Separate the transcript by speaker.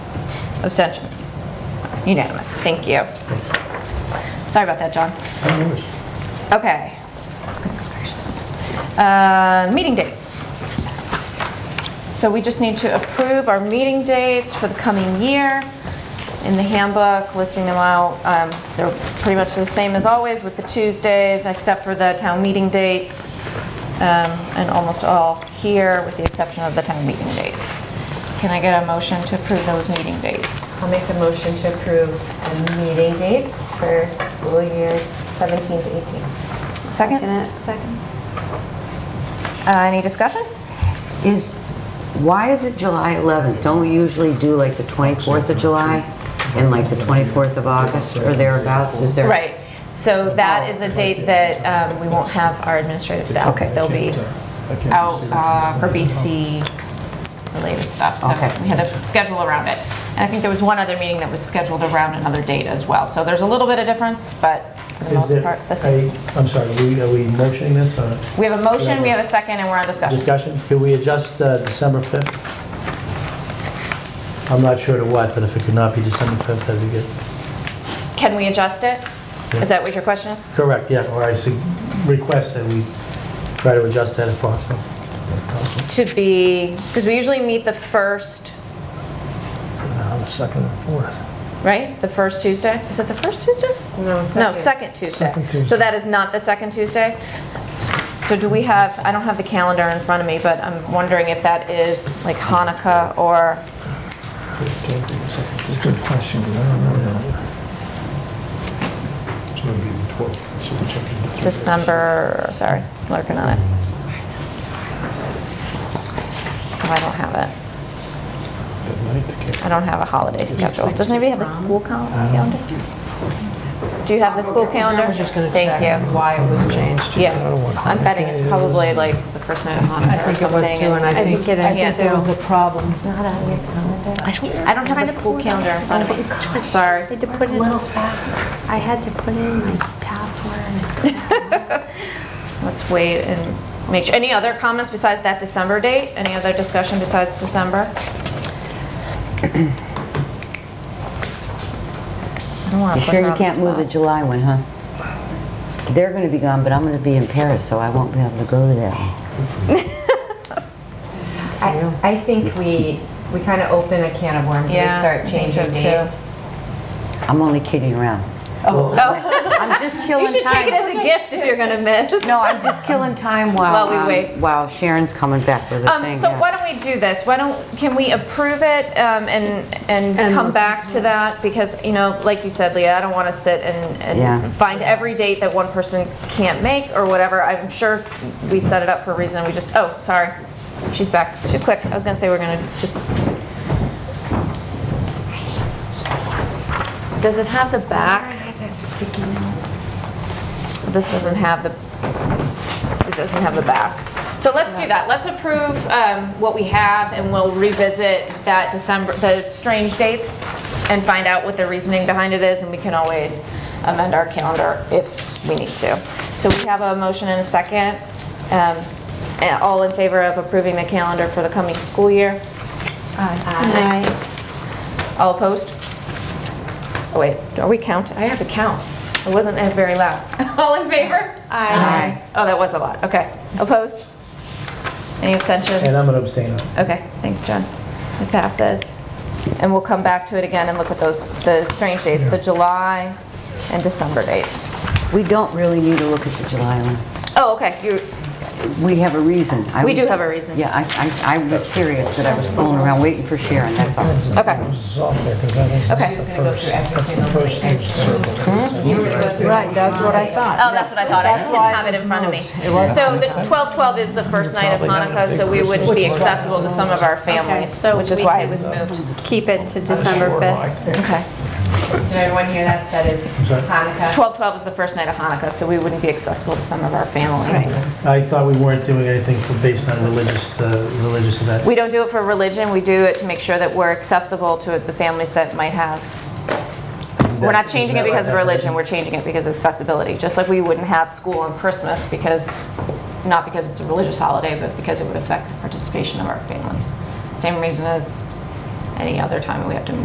Speaker 1: Abstentions? Unanimous, thank you. Sorry about that, John. Okay. Goodness gracious. Uh, Meeting dates. So we just need to approve our meeting dates for the coming year in the handbook, listing them out. Um, They're pretty much the same as always with the Tuesdays, except for the town meeting dates, um, and almost all here, with the exception of the town meeting dates. Can I get a motion to approve those meeting dates?
Speaker 2: I'll make a motion to approve the meeting dates for school year 17 to 18.
Speaker 1: Second?
Speaker 3: Second.
Speaker 1: Uh, Any discussion?
Speaker 4: Is, why is it July 11th? Don't we usually do like the 24th of July and like the 24th of August or thereabouts? Is there?
Speaker 1: Right, so that is a date that um, we won't have our administrative staff, because they'll be out uh, for BC-related stuff, so
Speaker 4: Okay.
Speaker 1: we had to schedule around it. And I think there was one other meeting that was scheduled around another date as well, so there's a little bit of difference, but for the
Speaker 5: Is
Speaker 1: most
Speaker 5: there
Speaker 1: part, the same.
Speaker 5: a- I'm sorry, are we- are we motioning this or
Speaker 1: We have a motion, we have a second, and we're on discussion.
Speaker 5: discussion? Could we adjust uh, December 5th? I'm not sure to what, but if it could not be December 5th, that'd be good.
Speaker 1: Can we adjust it?
Speaker 5: Yeah.
Speaker 1: Is that what your question is?
Speaker 5: Correct, yeah, or I sug- request that we try to adjust that if possible.
Speaker 1: To be, because we usually meet the first,
Speaker 5: Second and fourth.
Speaker 1: right? The first Tuesday? Is it the first Tuesday?
Speaker 2: No,
Speaker 1: No, second Tuesday. So that is not the second Tuesday? So do we have, I don't have the calendar in front of me, but I'm wondering if that is like Hanukkah or,
Speaker 6: It's a good question, 'cause I don't know that.
Speaker 1: December, sorry, lurking on it. Oh, I don't have it. I don't have a holiday schedule. Does anybody have the school cal- calendar? Do you have the school calendar? I was just gonna Thank you.
Speaker 7: why it was changed.
Speaker 1: Yeah, I'm betting it's probably like the first night of Hanukkah or something.
Speaker 7: I think it
Speaker 1: I think
Speaker 7: is
Speaker 1: there
Speaker 7: too.
Speaker 3: a problem.
Speaker 2: It's not on your calendar.
Speaker 7: I don't-
Speaker 1: I don't have a school calendar in front of me. Sorry.
Speaker 3: I had to put in, I had to put in my password.
Speaker 1: Let's wait and make sure. Any other comments besides that December date? Any other discussion besides December? I don't wanna
Speaker 4: You
Speaker 1: put
Speaker 4: sure
Speaker 1: her
Speaker 4: you
Speaker 1: on the
Speaker 4: can't move the
Speaker 1: spot.
Speaker 4: July one, huh? They're going to be gone, but I'm going to be in Paris, so I won't be able to go to that one.
Speaker 2: I, I think we, we kind of open a can of worms if we
Speaker 1: Yeah, I
Speaker 2: start
Speaker 1: think so
Speaker 2: changing
Speaker 1: too.
Speaker 2: dates.
Speaker 4: I'm only kidding around.
Speaker 1: Oh,
Speaker 4: I'm just
Speaker 1: You
Speaker 4: killing time.
Speaker 1: should take it as a gift if you're gonna miss.
Speaker 4: No, I'm just killing time
Speaker 1: While
Speaker 4: while,
Speaker 1: we wait.
Speaker 4: um, while Sharon's coming back with a
Speaker 1: Um,
Speaker 4: thing.
Speaker 1: so
Speaker 4: yeah.
Speaker 1: why don't we do this? Why don't, can we approve it, um, and, and come back to that? Because, you know, like you said, Leah, I don't wanna sit and,
Speaker 4: Yeah.
Speaker 1: and find every date that one person can't make or whatever. I'm sure we set it up for a reason, we just, oh, sorry, she's back, she's quick. I was gonna say we're gonna just. Does it have the back? This doesn't have the it doesn't have the back. So let's do that. Let's approve um, what we have, and we'll revisit that December, the strange dates, and find out what the reasoning behind it is, and we can always amend our calendar if we need to. So we have a motion and a second. Um, and All in favor of approving the calendar for the coming school year?
Speaker 3: Aye.
Speaker 1: All opposed? Oh, wait, are we counting? I have to count. It wasn't that very loud. All in favor?
Speaker 3: Aye.
Speaker 1: Oh, that was a lot, okay. Opposed? Any abstentions?
Speaker 5: And I'm going to abstain on it.
Speaker 1: Okay, thanks, John. It passes. And we'll come back to it again and look at those, the strange dates, the July and December dates.
Speaker 4: We don't really need to look at the July one.
Speaker 1: Oh, okay, you,
Speaker 4: We have a reason. I
Speaker 1: We
Speaker 4: was-
Speaker 1: do have a reason.
Speaker 4: Yeah, I, I, I was serious, but I was fooling around waiting for Sharon, that's all.
Speaker 1: okay, okay.
Speaker 2: She's gonna go through every single thing. You were gonna go through
Speaker 4: Right, that's what I thought.
Speaker 1: Oh, that's what I thought, I just didn't have it in front of me. So the 12/12 is the first night of Hanukkah, so we wouldn't be accessible to some of our families,
Speaker 3: so
Speaker 1: which is
Speaker 3: we
Speaker 1: why it was
Speaker 3: can-
Speaker 1: moved.
Speaker 3: Keep it to December 5th.
Speaker 1: Okay.
Speaker 2: Did everyone hear that? That is Hanukkah.
Speaker 1: 12/12 is the first night of Hanukkah, so we wouldn't be accessible to some of our families.
Speaker 5: I thought we weren't doing anything for- based on religious, uh, religious events.
Speaker 1: We don't do it for religion, we do it to make sure that we're accessible to the families that might have We're not changing it because of religion, we're changing it because of accessibility, just like we wouldn't have school on Christmas because, not because it's a religious holiday, but because it would affect the participation of our families. Same reason as any other time we have to